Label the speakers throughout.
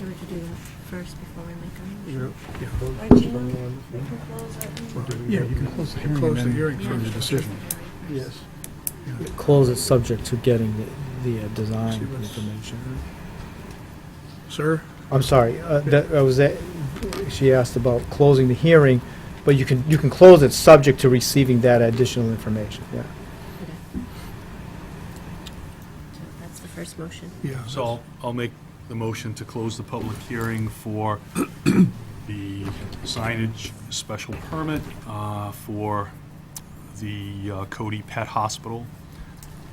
Speaker 1: We were to do that first before we make a motion.
Speaker 2: You know,
Speaker 3: Right, Gina? We can close our-
Speaker 2: Yeah, you can close the hearing.
Speaker 4: Close the
Speaker 2: and
Speaker 4: hearing
Speaker 2: then the decision.
Speaker 1: Yes.
Speaker 2: Yes.
Speaker 5: Close is subject to getting the, the uh, design
Speaker 4: See what's-
Speaker 5: information.
Speaker 4: Sir?
Speaker 5: I'm sorry, uh, that, I was, at- she asked about closing the hearing, but you can, you can close it subject to receiving that additional information, yeah.
Speaker 1: Okay. So That's the first motion.
Speaker 4: Yeah.
Speaker 6: So I'll, I'll make the motion to close the public hearing for the signage special permit uh, for the uh, Cody Pet Hospital,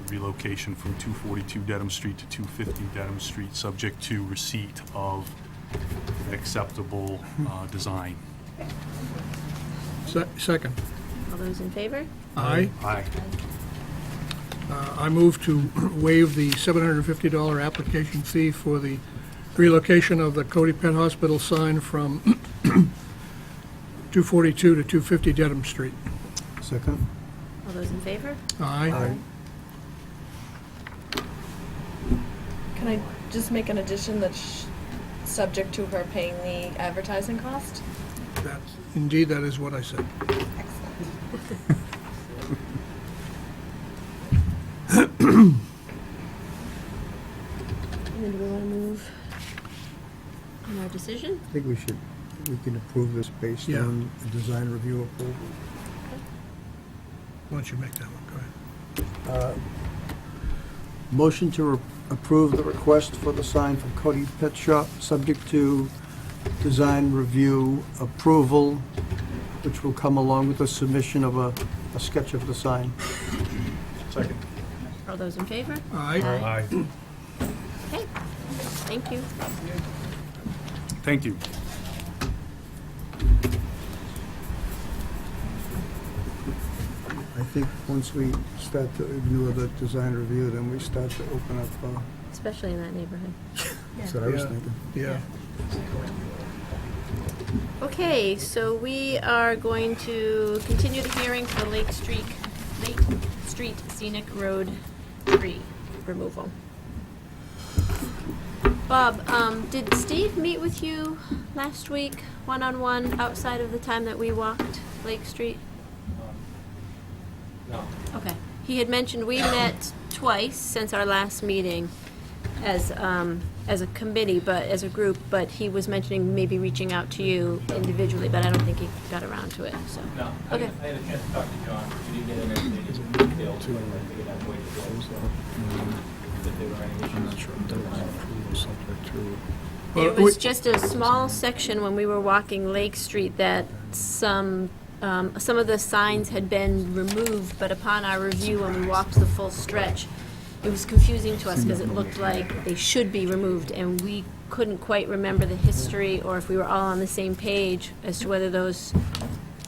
Speaker 6: relocation from 242 Dedham Street to 250 Dedham Street, subject to receipt of an acceptable uh, design.
Speaker 4: Se- Second.
Speaker 1: All those in favor?
Speaker 4: Aye.
Speaker 6: Aye.
Speaker 4: Uh, I move to waive the $750 application fee for the relocation of the Cody Pet Hospital sign from 242 to 250 Dedham Street.
Speaker 2: Second?
Speaker 1: All those in favor?
Speaker 4: Aye.
Speaker 3: Can I just make an addition that's subject to her paying the advertising cost?
Speaker 4: That- Indeed, that is what I said.
Speaker 3: Excellent.
Speaker 1: And then do we want to move on our decision?
Speaker 2: I think we should, we can approve this based
Speaker 4: Yeah.
Speaker 2: on the design review approval.
Speaker 4: Why don't you make that one, go ahead.
Speaker 2: Motion to re- approve the request for the sign from Cody Pet Shop, subject to design review approval, which will come along with the submission of a, a sketch of the sign.
Speaker 6: Second.
Speaker 1: All those in favor?
Speaker 4: Aye.
Speaker 6: Aye.
Speaker 1: Okay, thank you.
Speaker 6: Thank you.
Speaker 2: I think once we start to ignore the design review, then we start to open up, uh,
Speaker 1: Especially in that neighborhood.
Speaker 2: that's what I was
Speaker 4: Yeah.
Speaker 2: thinking.
Speaker 4: Yeah.
Speaker 1: Okay, so we are going to continue the hearing for Lake Street, Lake Street Scenic Road Tree Removal. Bob, um, did Steve meet with you last week, one-on-one, outside of the time that we walked Lake Street? No. Okay. He had mentioned we met twice since our last meeting as, um, as a committee, but, as a group, but he was mentioning maybe reaching out to you individually, but I don't think he got around to it, so.
Speaker 7: No, I
Speaker 1: Okay.
Speaker 7: had I had a chance to talk to John, we didn't get into any detail to it, but I figured I'd wait until, so, if there were any issues.
Speaker 8: I'm not sure if that was approval subject to.
Speaker 4: Well,
Speaker 1: It was
Speaker 4: we-
Speaker 1: just a small section when we were walking Lake Street that some, um, some of the signs had been removed, but upon our review, when we walked the full stretch, it was confusing to us because it looked like they should be removed, and we couldn't quite remember the history or if we were all on the same page as to whether those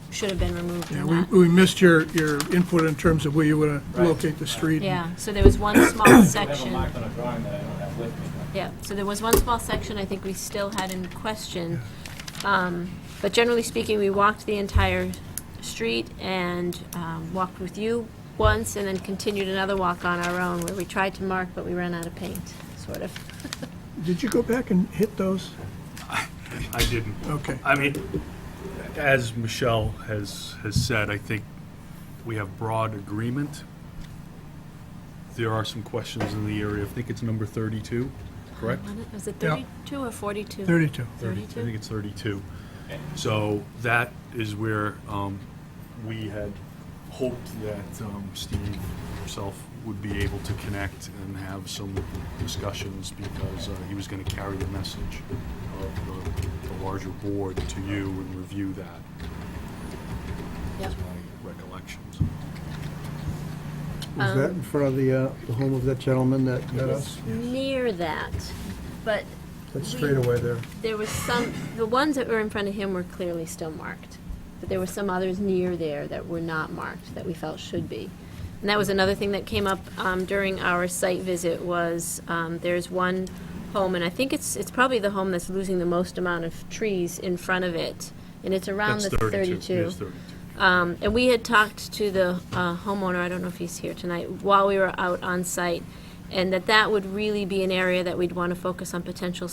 Speaker 1: should have been removed
Speaker 4: Yeah,
Speaker 1: or
Speaker 4: we
Speaker 1: not.
Speaker 4: we missed your, your input in terms of where you want to
Speaker 7: Right.
Speaker 4: locate the street.
Speaker 1: Yeah, so there was one small
Speaker 7: I have a
Speaker 1: section.
Speaker 7: mark on a drawing that I don't have with me, but
Speaker 1: Yeah, so there was one small section I think we still had in question. Um, But generally speaking, we walked the entire street and um, walked with you once and then continued another walk on our own where we tried to mark, but we ran out of paint, sort of.
Speaker 4: Did you go back and hit those?
Speaker 6: I didn't.
Speaker 4: Okay.
Speaker 6: I mean, as Michelle has, has said, I think we have broad agreement. There are some questions in the area. I think it's number 32, correct?
Speaker 1: Was it
Speaker 4: Yeah.
Speaker 1: 32 or 42?
Speaker 4: 32.
Speaker 6: I
Speaker 1: 32?
Speaker 6: think it's 32. So that is where um, we had hoped that um, Steve himself would be able to connect and have some discussions because uh, he was going to carry the message of the- the larger board to you and review that.
Speaker 1: Yep.
Speaker 6: That's my recollections.
Speaker 2: Was that in front of the, uh, the home of that gentleman that met us?
Speaker 1: Near that, but
Speaker 2: That straightaway there.
Speaker 1: there was some, the ones that were in front of him were clearly still marked, but there were some others near there that were not marked that we felt should be. And that was another thing that came up um, during our site visit was, um, there's one home, and I think it's, it's probably the home that's losing the most amount of trees in front of it, and it's around
Speaker 6: That's
Speaker 1: the
Speaker 6: 32. It is 32.
Speaker 1: um, and we had talked to the uh, homeowner, I don't know if he's here tonight, while we were out on site, and that that would really be an area that we'd want to focus on potential